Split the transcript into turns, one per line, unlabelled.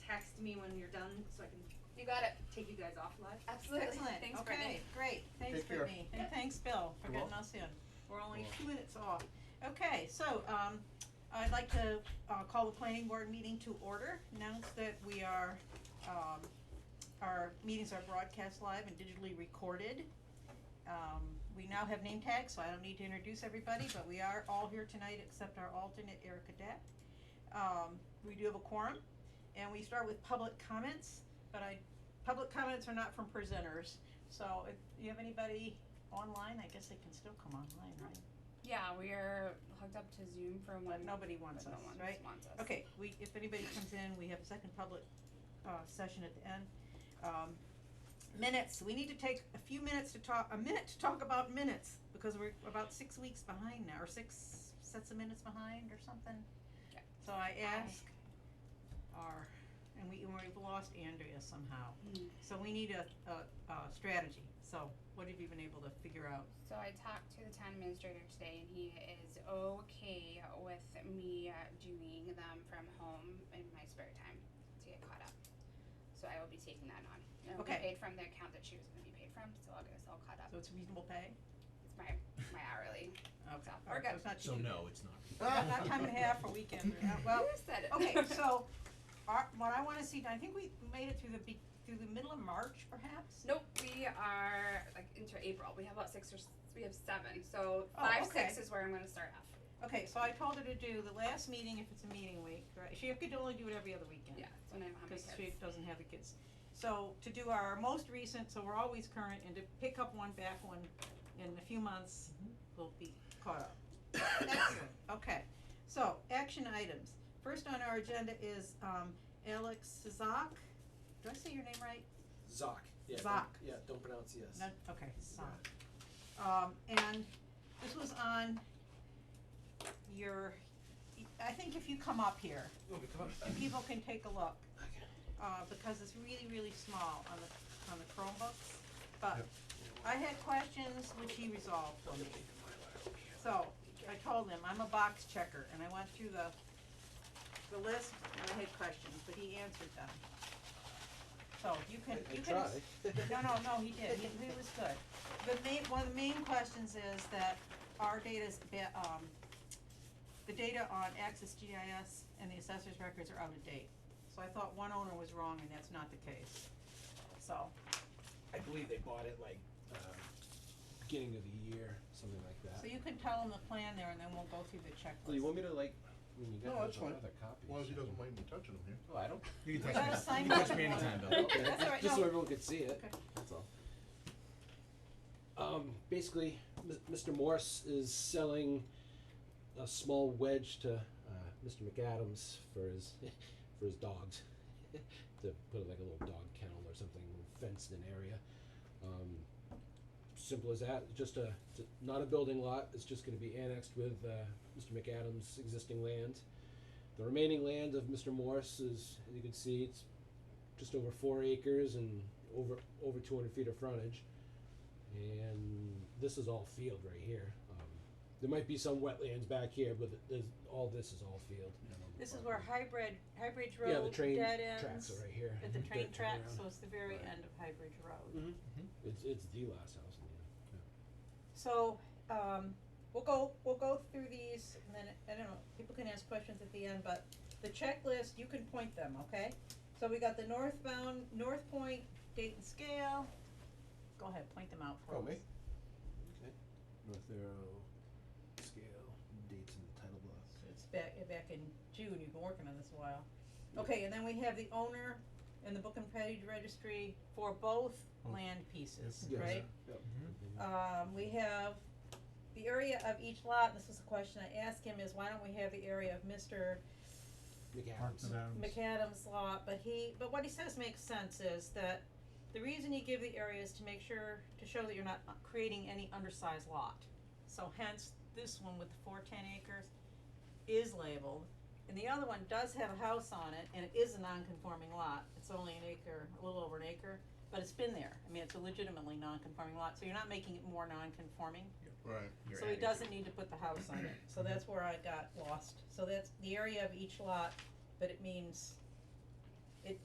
to me when you're done, so I can
You got it.
take you guys off live?
Absolutely. Thanks,
Excellent,
Brittany.
okay, great, thanks
Take care.
Brittany, and thanks Bill for
You're
getting
welcome.
us in, we're only
You're
two minutes off. Okay, so um I'd like to uh call the planning board meeting to order, announce that we are um our meetings are broadcast live and digitally recorded. Um we now have name tags, so I don't need to introduce everybody, but we are all here tonight except our alternate Erica Depp. Um we do have a quorum, and we start with public comments, but I, public comments are not from presenters, so if you have anybody online, I guess they can still come online, right?
Yeah, we are hooked up to Zoom for one.
But nobody wants
but
us,
no one
right?
wants us.
Okay, we, if anybody comes in, we have a second public, uh, session at the end. Um, minutes, we need to take a few minutes to talk, a minute to talk about minutes, because we're about six weeks behind now, or six sets of minutes behind or something.
Yeah.
So I ask our, and we, and we've lost Andrea somehow,
Mm.
so we need a, a, a strategy, so what have you been able to figure out?
So I talked to the town administrator today, and he is okay with me uh, doing them from home in my spare time to get caught up. So I will be taking that on. And I'll be
Okay.
paid from the account that she was going to be paid from, so I'll get us all caught up.
So it's reasonable pay?
It's my my hourly.
Okay,
So,
alright,
we're
so it's not
So
cheap.
no, it's not.
Not not time and a half or weekend, or not- well,
Who said it?
okay, so, our, what I wanna see, I think we made it through the be- through the middle of March perhaps?
Nope, we are like into April. We have about six or s- we have seven. So
Oh,
five, six
okay.
is where I'm going to start off.
Okay, so I told her to do the last meeting if it's a meeting week, right, she could only do it every other weekend.
Yeah, that's when I don't have my
Cause
kids.
she doesn't have the kids. So to do our most recent, so we're always current, and to pick up one back one in a few months, we'll be caught up. Mm-hmm. Excellent, okay. So, action items. First on our agenda is um Alex Zak. Did I say your name right?
Zoc. Yeah. don't-
Zoc.
Yeah, don't pronounce yes.
No, okay, Zak. Um and this was on your, I think if you come up here,
Okay, come on.
and people can take a look.
Okay.
uh, because it's really, really small on the, on the Chromebooks. But
Yep.
I had questions which he resolved for me. So I told him, I'm a box checker and I went through the, the list and I had questions, but he answered them. So you
I,
can,
I
you can.
try.
No, no, no, he did, he, he was good. The main, one of the main questions is that our data's, ba- um, the data on Access GIS and the assessor's records are out of date. So I thought one owner was wrong and that's not the case. So,
I believe they bought it like uh, beginning of the year, something like that.
so you can tell him the plan there and then we'll go through the
Well, you
checklist.
want me to like? I mean, you
No,
got
that's
those on
fine.
other copies.
As long as he
so-
doesn't mind me touching him here.
Oh, I don't.
You can touch
touch gotta
me.
me. sign
You
You can
can touch me
up for
anytime,
anytime,
Bill.
Okay,
That's all right,
just
no.
so everyone could see it.
Okay.
That's all. Um, basically, Mis- Mr. Morse is selling a small wedge to uh, Mr. McAdams for his for his dogs to put like a little dog kennel or something fenced in area. Um, simple as that. Just a t- not a building lot. It's just going to be annexed with uh, Mr. McAdams' existing land. The remaining land of Mr. Morse is, as you can see, it's just over four acres and over over 200 feet of frontage. And this is all field right here. Um, there might be some wetlands back here, but th- there's, all this is all field.
This is where High Bridge, High Bridge
yeah, the
Road,
train
dead
tracks
ends,
are right here.
at the
Mhm.
train
Dead
track,
turnaround.
so it's the very
Right.
end of High Bridge Road.
It's it's the last house in the
So, um, we'll go, we'll go through these, and then, I don't know, people can ask questions at the end, but the checklist, you can point them, okay? So we got the northbound, North Point, date and scale, go ahead, point them out for us.
Oh, me?
Okay. North Arrow uh, scale dates in the title block.
It's back, back in June, you've been working on this a while. Okay, and then we have the owner and the book and page registry for both
Hmm.
Both.
land pieces,
Yes.
right?
Yep.
Um, we have the area of each lot, this was a question I asked him, is why don't we have the area of Mister
McAdams.
McAdams lot, but he, but what he says makes sense is that the reason you give the area is to make sure, to show that you're not uh, creating any undersized lot. So hence, this one with the four ten acres is labeled, and the other one does have a house on it, and it is a non-conforming lot, it's only an acre, a little over an acre, but it's been there, I mean, it's a legitimately non-conforming lot, so you're not making it more non-conforming.
Right.
So he doesn't need to put the house on it, so that's where I got lost, so that's the area of each lot, but it means